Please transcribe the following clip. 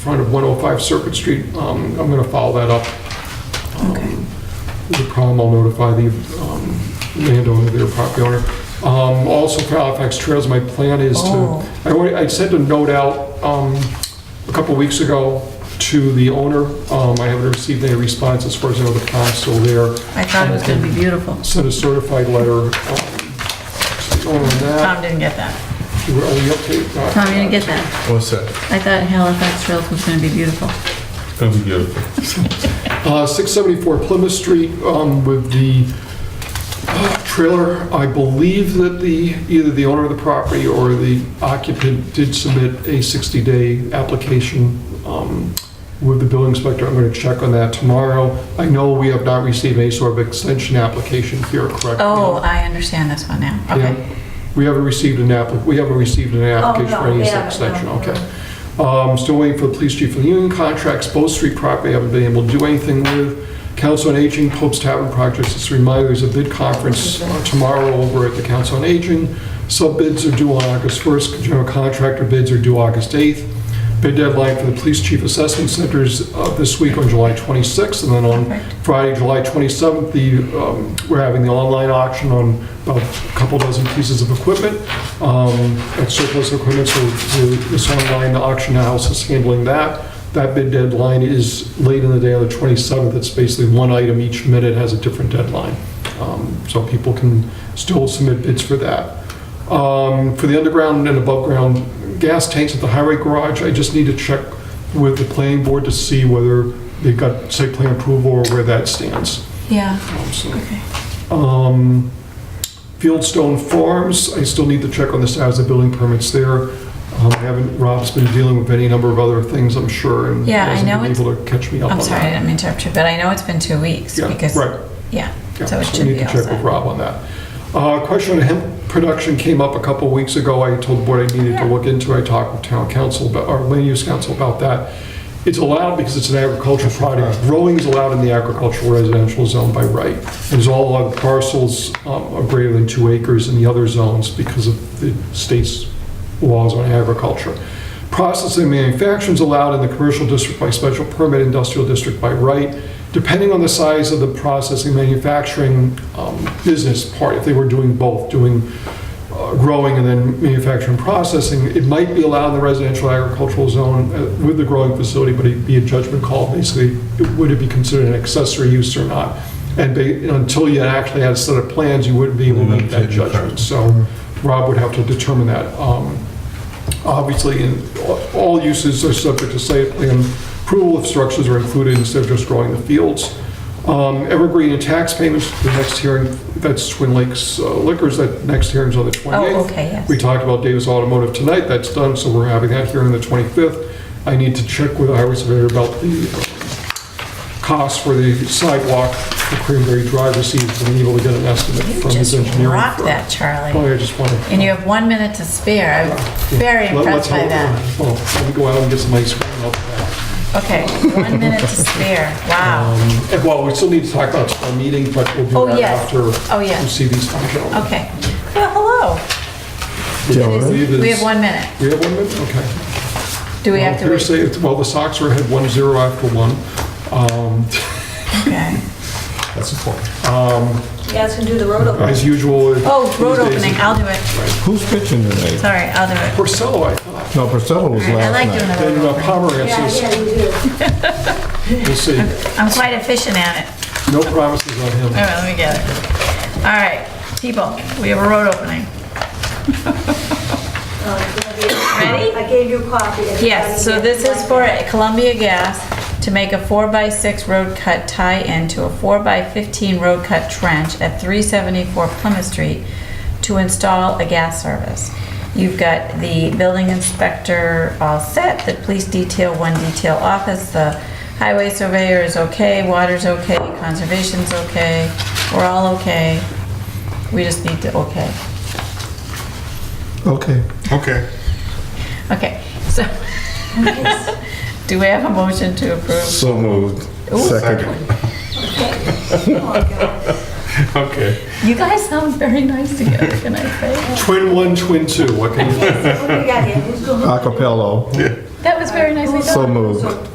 front of 105 Circuit Street. Um, I'm going to follow that up. Okay. The problem, I'll notify the um, landowner, their property owner. Um, Also for Halifax Trails, my plan is Oh. to, I wa- I sent a note out um, a couple weeks ago to the owner. Um, I haven't received any response as far as I know the plan's still there. I thought it was gonna be beautiful. Sent a certified letter um, to the owner on that. Tom didn't get that. Are we up to? Tom, you didn't get that. What's that? I thought Halifax Trails was gonna be beautiful. It's gonna be beautiful. Uh, 674 Plymouth Street um, with the uh, trailer. I believe that the, either the owner of the property or the occupant did submit a 60-day application um, with the building inspector. I'm going to check on that tomorrow. I know we have not received any sort of extension application here, correct? Oh, I understand this one now. Yeah. Okay. Oh, We haven't received an app, we haven't received an application for any they haven't, extension, no, okay. Um, Still waiting for the police chief and union contracts, Bow Street property, haven't been able to do anything with. Council on Aging, Pope's Tavern projects, just a reminder, there's a bid conference uh, tomorrow over at the Council on Aging. Sub-bids are due on August 1st, general contractor bids are due August 8th. Bid deadline for the police chief assessment centers uh, this week on July 26th, and then on Perfect. Friday, July 27th, the, um, we're having the online auction on about a couple dozen pieces of equipment, um, at surplus equipment, so the- this online auction house is handling that. That bid deadline is late in the day on the 27th, it's basically one item each minute has a different deadline. Um, So people can still submit bids for that. Um, For the underground and above-ground gas tanks at the highway garage, I just need to check with the planning board to see whether they've got site plan approval or where that stands. Yeah, Um, so, okay. um, Fieldstone Farms, I still need to check on the status of building permits there. Um, I haven't, Rob's been dealing with any number of other things, I'm sure, and Yeah, I hasn't know been it's- able to catch me up on I'm sorry, I that. didn't mean to interrupt you, but I know it's been two weeks Yeah, because, right. yeah, Yeah, so it we should need be to all check with set. Rob on that. Uh, Question on hemp production came up a couple weeks ago. I told the board I needed to look into. it. I talked with town council, about- or land use council about that. It's allowed because it's an agricultural product. Growing is allowed in the agricultural residential zone by right. There's all of parcels um, of greater than two acres in the other zones because of the state's laws on agriculture. Processing and manufacturing is allowed in the commercial district by special permit, industrial district by right. Depending on the size of the processing manufacturing um, business part, if they were doing both, doing uh, growing and then manufacturing processing, it might be allowed in the residential agricultural zone uh, with the growing facility, but it'd be a judgment call, basically, would it be considered an accessory use or not? And ba- until you actually had a set of plans, you wouldn't be able to make that judgment. So Rob would have to determine that. Um, Obviously, in- all uses are subject to site plan approval if structures are included instead of just growing the fields. Um, Evergreen and tax payments, the next hearing, that's Twin Lakes uh, Liquors, that next hearing's on the 28th. Oh, okay, yes. We talked about Davis Automotive tonight, that's done, so we're having that hearing the 25th. I need to check with the highway surveyor about the cost for the sidewalk for Cranberry Drive receipts, and able to get an estimate You from his just engineering rocked firm. that, Oh, Charlie. yeah, I just wanted. And you have one minute to spare. I'm very Let- let's impressed by hope- that. Well, let me go out and get some ice cream. and I'll be back. Okay, one minute to spare. Wow. Um, and, Well, we still need to talk about our meeting, but we'll Oh, do that yes. after Oh, we yes. see these things out. Okay. Well, hello. We have one minute. We have one minute, okay. Do we have to Well, wait? hearsay, it's- Well, the Sox were ahead 1-0 after one. Um, Okay. That's important. You guys can do the road opening. As usual. Oh, road Tuesdays- opening. I'll do it. Who's pitching tonight? Sorry, I'll do it. Porcello, I thought. No, Priscilla was I last like doing night. the Then road uh, opening. Yeah, Pomeranz yeah, is, you do. we'll see. I'm quite efficient at it. No promises on him. All right, let me get it. All right, people, we have a road opening. Ready? I gave you a copy. Yes, so this is for Columbia Gas to make a 4x6 road cut tie-in to a 4x15 road cut trench at 374 Plymouth Street to install a gas service. You've got the building inspector all set, the police detail, one detail office, the highway surveyor is okay, water's okay, conservation's okay, we're all okay. We just need to, okay. Okay. Okay. Okay, so, do we have a motion to approve? So moved. Ooh. Second. Okay. You guys sound very nice together, can I say? Twin one, twin two, what can you? Yes, what do we got here? Who's going? Acapello. Yeah. That was very nicely done. So moved.